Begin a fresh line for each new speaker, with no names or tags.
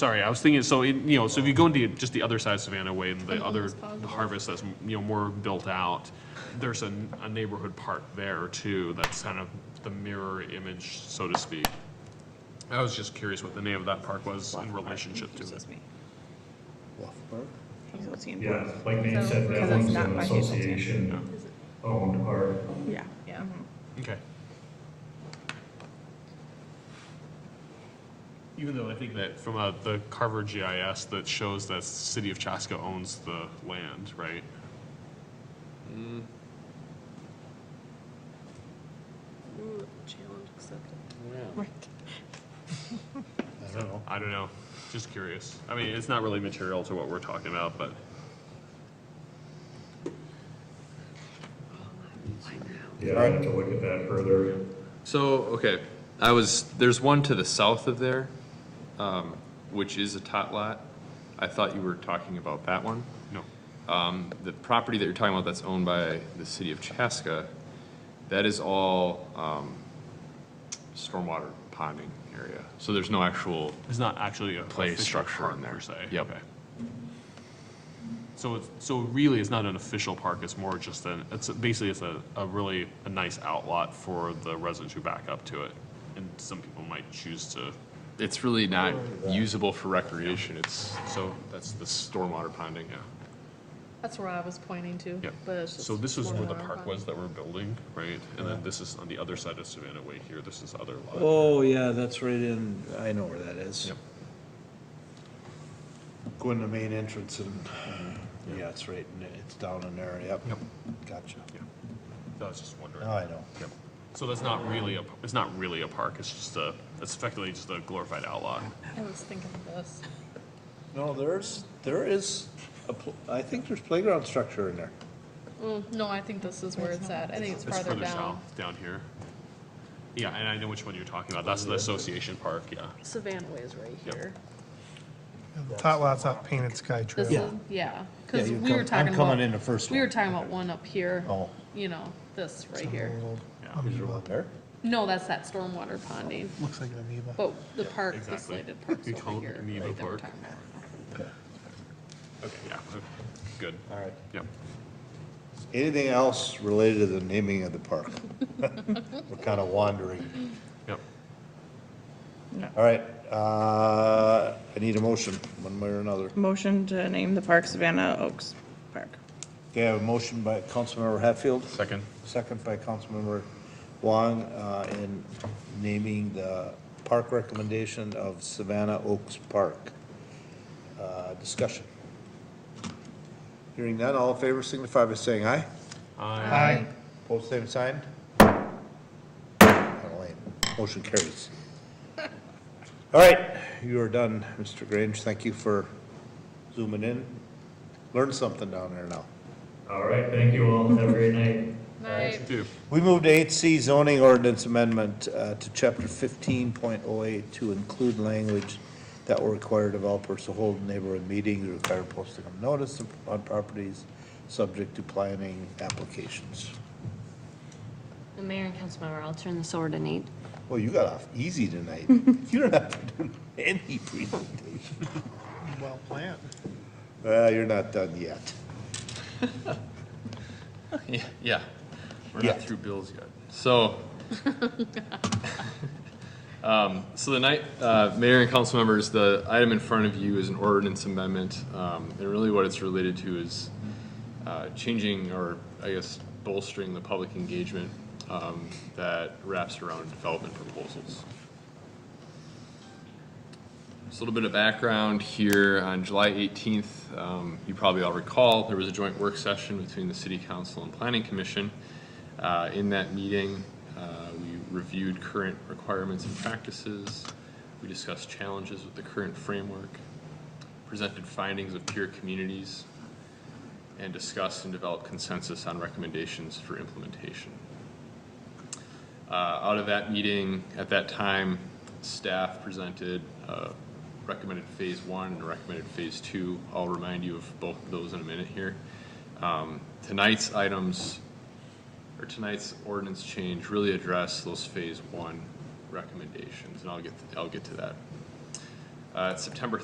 Sorry, I was thinking, so, it- you know, so if you go into just the other side of Savannah Way and the
Something
other
that's possible.
harvest that's, you know, more built out, there's a, a neighborhood park there too, that's kind of the mirror image, so to speak. I was just curious what the name of that park was in relationship to it.
Confuses me.
Bluffburg?
Hazeltine.
Yeah, like Nate
So,
said,
because
that
it's
one's
not
an
by Hazelton.
association owned park.
Yeah. Yeah. mhm.
Okay. Even though I think that from uh, the Carver GIS that shows that City of Chaska owns the land, right?
Ooh, Challenge accepted.
Yeah.
Right.
I don't know.
I don't know, just curious. I mean, it's not really material to what we're talking about, but.
Yeah, I have to look at that further.
So, okay, I was, there's one to the south of there, um, which is a tot lot. I thought you were talking about that one.
No.
Um, the property that you're talking about that's owned by the city of Chaska, that is all, um, stormwater ponding area. So there's no actual,
It's not actually a
Play
official
structure
park
in there.
per se.
Yep.
Okay. So it's, so really, it's not an official park. It's more just an. It's basically it's a, a really a nice outlot for the residents who back up to it, and some people might choose to.
it's really not usable for recreation. It's,
So
that's the stormwater ponding, yeah.
That's where I was pointing to.
yeah.
But it's just
So this is
more
where
than
the
our
park
pond.
was that we're building, right? And then this is on the other side of Savannah Way here. This is other lot.
Oh, yeah, that's right in, I know where that is.
Yep.
Go in the main entrance and, yeah, it's right, in there. it's down in there, yep.
Yep.
Gotcha.
Yeah. So I was just wondering.
Now I know.
Yep. So that's not really a. It's not really a park. It's just a. It's effectively just a glorified outlot.
I was thinking of this.
No, there's, there is, a pl- I think there's playground structure in there.
Mm, No, I think this is where it's at. I think it's
It's
farther
further
down.
south, down here. Yeah, and I know which one you're talking about. That's the Association Park, yeah.
Savannah Way is right
Yep.
here.
The Tot lots off Painted Sky
This
Trail.
is, yeah, because
you
we
come-
were
I'm
talking about.
coming in the first
We were
one.
talking about one up here.
Oh.
You know, this right here.
Yeah.
Is there one there?
No, that's that stormwater ponding,
Looks like an amoeba.
but the park, the
exactly.
slated park's
You
over
call it
here.
Amoeba
right that we're
Park.
talking about.
Okay, yeah, good.
All right.
Yep.
Anything else related to the naming of the park? We're kind of wandering.
Yep.
All right, uh, I need a motion, one way or another.
Motion to name the park Savannah Oaks Park.
Okay, I have a motion by Councilmember Hatfield.
Second.
Second by Councilmember Wong, uh, in naming the park recommendation of Savannah Oaks Park. Uh, discussion. Hearing none, all in favor signify by saying aye.
Aye.
Post same sign. Not a lane. Motion carries. All right, you are done, Mr. Grange. Thank you for zooming in. Learned something down there now.
All right, thank you all. Have a great night.
Night.
Two.
We move to eight C zoning ordinance amendment uh, to chapter fifteen point oh eight to include language that will require developers to hold neighborhood meetings, require posting of notice on properties subject to planning applications.
The mayor and council member, I'll turn this over to Nate.
Well, you got off easy tonight. You don't have to do any presentation.
Well planned.
Well, you're not done yet.
Yeah, yeah. We're
Yeah.
not through bills yet. So, um, so the night, uh, mayor and council members, the item in front of you is an ordinance amendment. Um, and really what it's related to is, uh, changing or I guess bolstering the public engagement, um, that wraps around development proposals. Just a little bit of background here. On July 18th, um, you probably all recall, there was a joint work session between the City Council and Planning Commission. Uh, In that meeting, uh, we reviewed current requirements and practices. We discussed challenges with the current framework, presented findings of peer communities, and discussed and developed consensus on recommendations for implementation. Uh, Out of that meeting, at that time, staff presented uh, recommended phase one and recommended phase two. I'll remind you of both of those in a minute here. Um, Tonight's items, or tonight's ordinance change really address those phase one recommendations, and I'll get, I'll get to that. Uh, September